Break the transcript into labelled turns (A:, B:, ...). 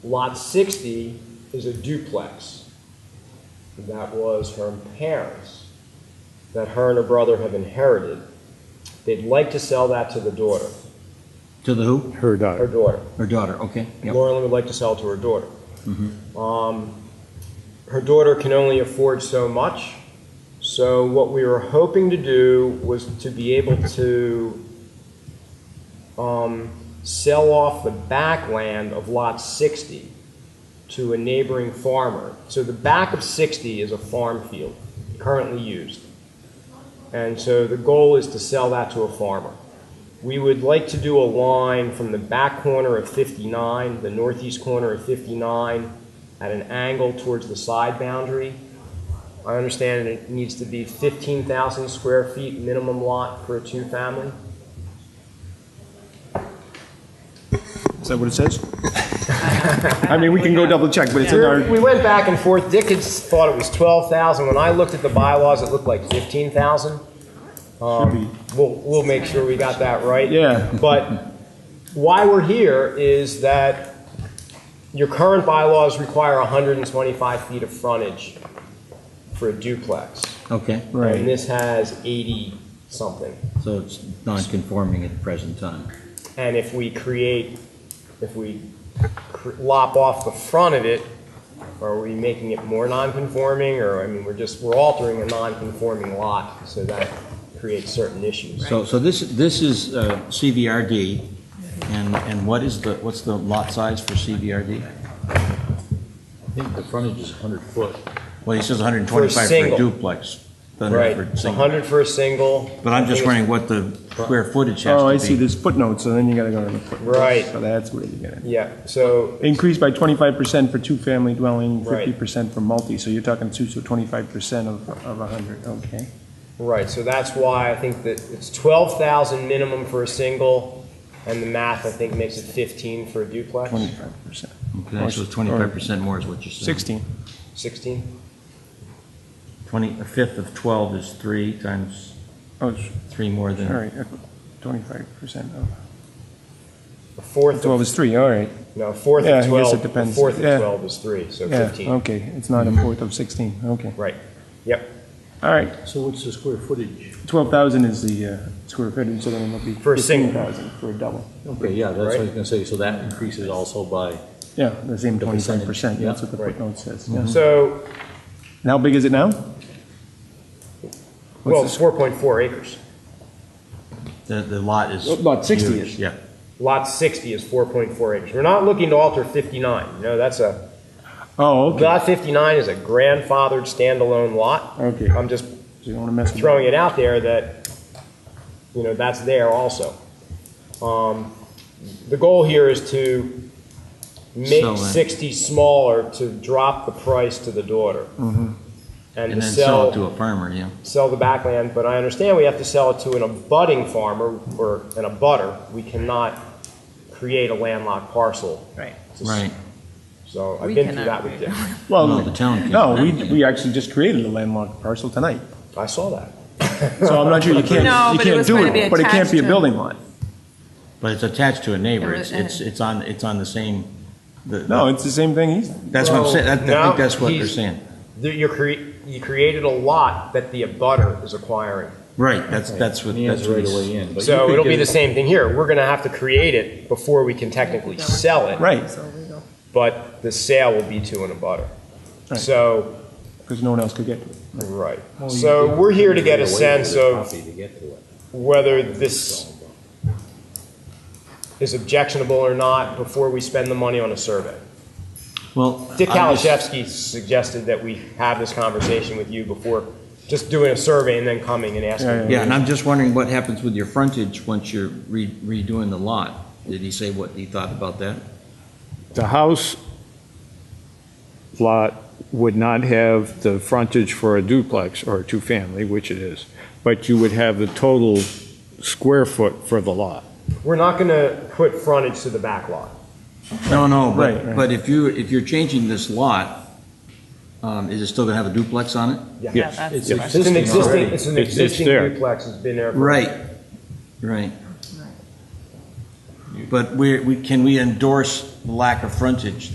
A: Lot 60 is a duplex. And that was her parents, that her and her brother have inherited. They'd like to sell that to the daughter,
B: To the who?
C: Her
A: her
C: daughter.
A: daughter.
B: Her daughter, okay. Yep.
A: Lauren Lynn would like to sell to her daughter. Um, her daughter can only afford so much. So what we were hoping to do was to be able to um, sell off the back land of lot 60 to a neighboring farmer. So the back of 60 is a farm field currently used. And so the goal is to sell that to a farmer. We would like to do a line from the back corner of 59, the northeast corner of 59, at an angle towards the side boundary. I understand it needs to be 15,000 square feet minimum lot for a two-family.
C: Is that what it says? I mean, we can go double check, but it's in
A: We
C: our,
A: went back and forth. Dick had s- thought it was 12,000. When I looked at the bylaws, it looked like 15,000. Um, We'll, we'll make sure we got that right.
C: Yeah.
A: But why we're here is that your current bylaws require 125 feet of frontage for a duplex.
B: Okay,
A: And
C: right.
A: this has 80 something.
B: so it's non-conforming at the present time.
A: And if we create, if we cr- lop off the front of it, are we making it more non-conforming, or, I mean, we're just, we're altering a non-conforming lot, so that creates certain issues.
B: So, so this, this is uh, CVRD, and, and what is the, what's the lot size for CVRD?
D: I think the frontage is 100 foot.
B: Well, he says 125 for a
A: single.
B: duplex. but
A: Right,
B: for
A: a
B: single.
A: hundred for a single.
B: But I'm
A: I
B: just
A: think
B: wondering what the square footage has to be.
C: Oh, I see, there's footnotes, so then you gotta go to the footnotes.
A: Right.
C: So that's where you get it.
A: it's- Yeah, so,
C: Increase by twenty-five percent for two-family dwelling,
A: Right.
C: fifty percent for multi, so you're talking two, so twenty-five percent of, of a hundred, okay.
A: right, so that's why I think that it's twelve thousand minimum for a single, and the math, I think, makes it fifteen for a duplex,
C: Twenty-five percent,
B: Okay, so it's 25% more is what you're saying.
C: sixteen.
A: sixteen?
B: 20, a fifth of 12 is three times,
C: Oh, it's-
B: three more
C: all
B: than,
C: right, twenty-five percent of,
A: A fourth
C: twelve
A: of,
C: is three, all right,
A: no, a fourth
C: Yeah, I
A: of
C: guess it
A: twelve, a
C: depends.
A: fourth
C: Yeah.
A: of twelve is three, so
C: yeah,
A: fifteen,
C: okay, it's not a fourth of sixteen, okay.
A: right, yep.
C: All right,
D: So what's the square footage?
C: twelve thousand is the uh, square footage, so then it'll be
A: For a
C: fifteen
A: single.
C: thousand for a double.
D: Okay, yeah, that's what I was gonna say, so that increases also by,
C: Yeah, the same
D: The
C: twenty-five
D: percentage,
C: percent, that's
D: yeah.
C: what the footnote says, yeah.
A: So,
C: And how big is it now?
A: Well,
C: What's
A: it's 4.4 acres.
B: the, the lot is.
C: the- Lot sixty
B: huge,
C: is,
B: Yeah.
A: Lot 60 is 4.4 acres. We're not looking to alter 59. No, that's a,
C: oh, okay,
A: lot 59 is a grandfathered standalone lot.
C: okay, so
A: I'm just
C: you don't wanna mess with
A: throwing it out there that, you know, that's there also. Um, The goal here is to
B: Sell
A: make
B: it.
A: 60 smaller, to drop the price to the daughter. And
B: Mm-hmm. And
A: to
B: then sell it
A: sell,
B: to a farmer, yeah.
A: sell the backland, but I understand we have to sell it to an abutting farmer or an abutter. We cannot create a landlocked parcel.
E: Right.
A: It's a s-
B: Right.
A: So I've
E: We
A: been through that
E: cannot
A: with
E: create
A: Dick.
B: Oh, No, the
C: Well,
B: town can.
C: no, we, we actually just created a landlocked parcel tonight,
A: I saw that.
C: so I'm not sure you can't,
E: No,
C: you
E: but it
C: can't
E: was
C: do
E: gonna be
C: it, but it can't
E: attached
C: be a
E: to-
C: building lot.
B: But it's attached to a neighbor,
E: It
B: it's,
E: was-
B: it's, it's on, it's on the same, the.
C: No, it's the same thing he's,
B: That's what I'm saying, I I
A: Well, no,
B: think that's what they're
A: he's-
B: saying.
A: That You're crea- you created a lot that the abutter is acquiring.
B: Right, that's, that's what,
D: he
B: that's
D: has
B: what
D: right
B: he's.
D: away in. but you
A: So
D: could
A: it'll be
D: get
A: the
D: it-
A: same thing here. We're going to have to create it before we can technically sell it,
C: right,
E: So legal.
A: but the sale will be to an abutter.
C: Right.
A: So,
C: because no one else could get to it.
A: right.
D: Well, you
A: So
D: could
A: we're here to get a
D: away with
A: sense
D: the
A: of
D: copy to get to it.
A: whether this is objectionable or not before we spend the money on a survey.
B: Well.
A: Dick
B: I'm just-
A: Kalaszewski suggested that we have this conversation with you before just doing a survey and then coming and asking.
B: Yeah, and I'm just wondering what happens with your frontage once you're re- redoing the lot? Did he say what he thought about that?
F: The house lot would not have the frontage for a duplex or a two-family, which it is, but you would have the total square foot for the lot.
A: We're not going to put frontage to the back lot.
B: No, no,
C: Right,
B: but,
C: right.
B: but if you, if you're changing this lot, um, is it still gonna have a duplex on it?
E: Yeah,
F: Yes.
E: that's
D: It's
E: the
A: It's an
D: Existing
A: existing,
D: already.
A: it's an
F: It's- it's
A: existing
F: there.
A: duplex, it's been there. for-
B: Right, right. But we, we, can we endorse the lack of frontage